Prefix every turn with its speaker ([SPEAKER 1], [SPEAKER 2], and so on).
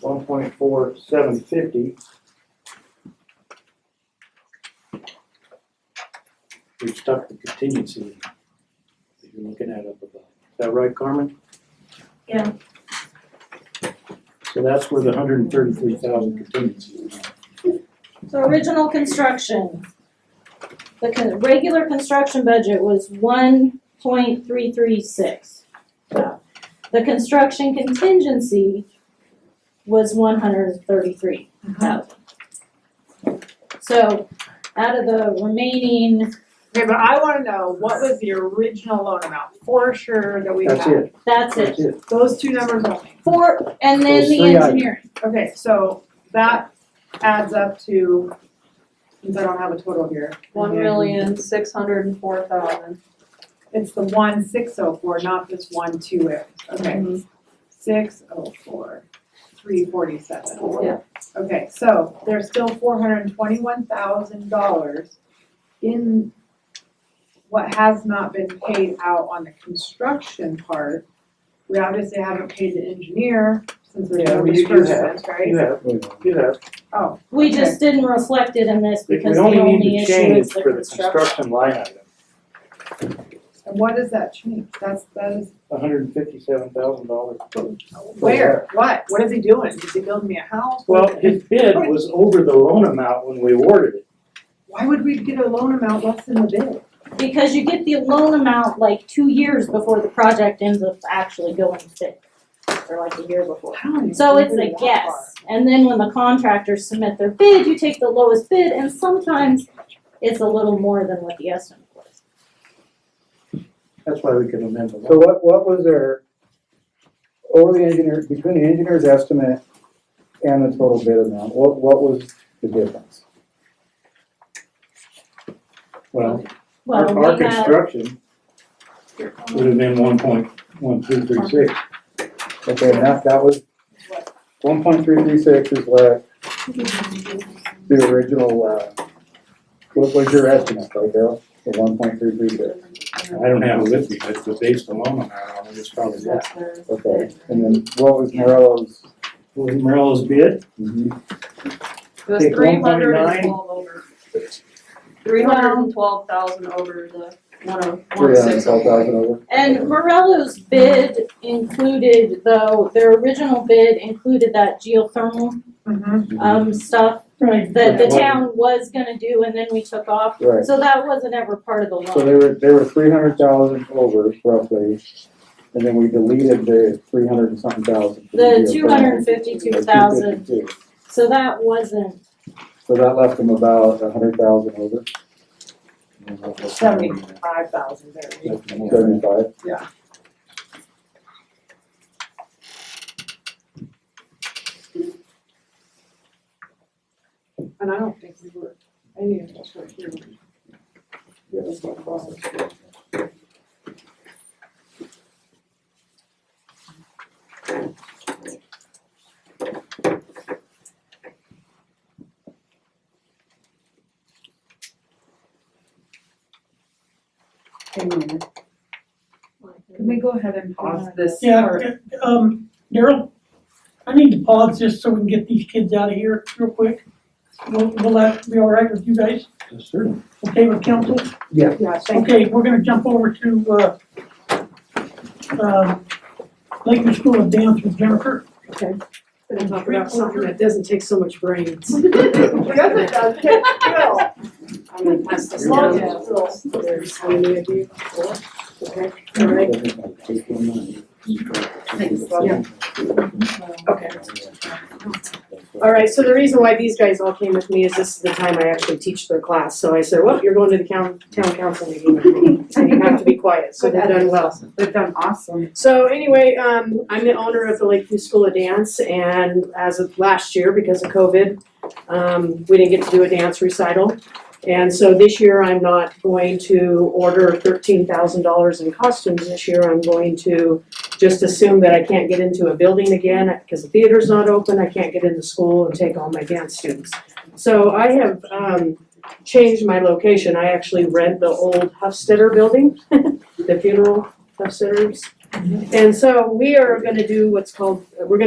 [SPEAKER 1] one point four seven fifty. We've stuck the contingency in that you're looking at up above. Is that right, Carmen?
[SPEAKER 2] Yeah.
[SPEAKER 1] So that's where the hundred and thirty-three thousand contingency is.
[SPEAKER 2] So original construction. The con- regular construction budget was one point three three six. The construction contingency was one hundred thirty-three thousand. So out of the remaining,
[SPEAKER 3] Okay, but I wanna know, what was the original loan amount for sure that we had?
[SPEAKER 1] That's it,
[SPEAKER 2] that's
[SPEAKER 1] that's
[SPEAKER 2] it.
[SPEAKER 1] it.
[SPEAKER 3] Those two numbers only.
[SPEAKER 2] Four, and then
[SPEAKER 1] Those
[SPEAKER 2] the
[SPEAKER 1] three items.
[SPEAKER 2] engineering.
[SPEAKER 3] Okay, so that adds up to, since I don't have a total here,
[SPEAKER 4] One million, six hundred and four thousand.
[SPEAKER 3] it's the one six oh four, not this one two it, okay? Six oh four, three forty-seven.
[SPEAKER 4] Yeah.
[SPEAKER 3] Okay, so there's still four hundred and twenty-one thousand dollars in what has not been paid out on the construction part. We obviously haven't paid the engineer since there's
[SPEAKER 1] Yeah,
[SPEAKER 3] no
[SPEAKER 1] well, you- you have-
[SPEAKER 3] disbursements, right?
[SPEAKER 1] You have, you have.
[SPEAKER 3] Oh,
[SPEAKER 2] We
[SPEAKER 3] Okay.
[SPEAKER 2] just didn't reflect it in this
[SPEAKER 1] We
[SPEAKER 2] because the
[SPEAKER 1] only
[SPEAKER 2] only
[SPEAKER 1] need to
[SPEAKER 2] issue
[SPEAKER 1] change
[SPEAKER 2] is the
[SPEAKER 1] for the construction line item,
[SPEAKER 3] and what does that change? That's, that is,
[SPEAKER 1] hundred and fifty-seven thousand dollars.
[SPEAKER 3] where, what, what is he doing? Is he building me a house?
[SPEAKER 1] Well, his bid was over the loan amount when we awarded it.
[SPEAKER 3] Why would we get a loan amount less than the bid?
[SPEAKER 2] Because you get the loan amount like two years before the project ends up actually going thick, or like a year before.
[SPEAKER 3] I don't even
[SPEAKER 2] So it's
[SPEAKER 3] remember
[SPEAKER 2] a
[SPEAKER 3] that
[SPEAKER 2] guess, and then when the contractors submit their bid, you take the lowest bid, and sometimes it's a little more than what the estimate was.
[SPEAKER 1] That's why we can amend the
[SPEAKER 5] So
[SPEAKER 1] loan.
[SPEAKER 5] what, what was their, over the engineer, between the engineer's estimate and the total bid amount, what, what was the difference?
[SPEAKER 1] Well,
[SPEAKER 2] Well,
[SPEAKER 1] our, our
[SPEAKER 2] we have,
[SPEAKER 1] construction would have been one point one two three six.
[SPEAKER 5] Okay, and that, that was, one point three three six is what the original, uh, what was your estimate, right, Daryl? The one point three three six,
[SPEAKER 1] I don't have it with me, but the base alone amount, it's probably that.
[SPEAKER 5] okay, and then what was Morello's?
[SPEAKER 1] Was Morello's bid,
[SPEAKER 4] It was
[SPEAKER 1] Take
[SPEAKER 4] three hundred and
[SPEAKER 1] 1.9.
[SPEAKER 4] twelve over. Three hundred and twelve thousand over the one oh, one
[SPEAKER 5] Three hundred
[SPEAKER 4] six
[SPEAKER 5] twelve
[SPEAKER 4] oh.
[SPEAKER 5] thousand over,
[SPEAKER 2] and Morello's bid included, though, their original bid included that geothermal,
[SPEAKER 3] part. Mhm.
[SPEAKER 2] um, stuff
[SPEAKER 1] Mm-hmm. Right.
[SPEAKER 2] that the town was gonna do, and then we took off,
[SPEAKER 5] right,
[SPEAKER 2] So that wasn't ever part of the
[SPEAKER 5] so
[SPEAKER 2] loan.
[SPEAKER 5] they were, they were three hundred thousand over roughly, and then we deleted the three hundred and something thousand. for
[SPEAKER 2] The
[SPEAKER 5] deal.
[SPEAKER 2] two hundred and fifty-two thousand, so that wasn't,
[SPEAKER 5] So that left them about a hundred thousand over,
[SPEAKER 3] Seventy-five thousand there.
[SPEAKER 5] seventy-five.
[SPEAKER 3] And I don't think we were, I didn't even touch right here. Hang on a minute.
[SPEAKER 4] oh.
[SPEAKER 3] Can we go ahead and pause this
[SPEAKER 6] Yeah,
[SPEAKER 3] part?
[SPEAKER 6] d- um, Daryl, I need to pause just so we can get these kids out of here real quick. Will, will that be all right with you guys?
[SPEAKER 1] Certainly.
[SPEAKER 6] Okay with council?
[SPEAKER 3] Yeah, thank you.
[SPEAKER 6] Okay, we're gonna jump over to, uh, uh, Laker School of Dance with Jennifer.
[SPEAKER 7] Gonna talk about something that doesn't take so much brains. I'm
[SPEAKER 3] Yes, it does, take skill.
[SPEAKER 7] gonna pass this
[SPEAKER 3] Long
[SPEAKER 7] down.
[SPEAKER 3] as-
[SPEAKER 7] There's how many of you? Four? Okay, all right.
[SPEAKER 1] Thanks,
[SPEAKER 7] Yeah. Okay. All right, so the reason why these guys all came with me is this is the time I actually teach their class. So I said, well, you're going to the coun- town council meeting. And you have to be quiet, so they've done well.
[SPEAKER 3] They've done awesome.
[SPEAKER 7] So anyway, um, I'm the owner of the Lakeview School of Dance and as of last year, because of COVID, um, we didn't get to do a dance recital. And so this year, I'm not going to order thirteen thousand dollars in costumes this year. I'm going to just assume that I can't get into a building again because the theater's not open. I can't get into school and take all my dance students. So I have, um, changed my location. I actually rent the old Huffstetter building, the funeral Huffstetters. And so we are gonna do what's called, we're gonna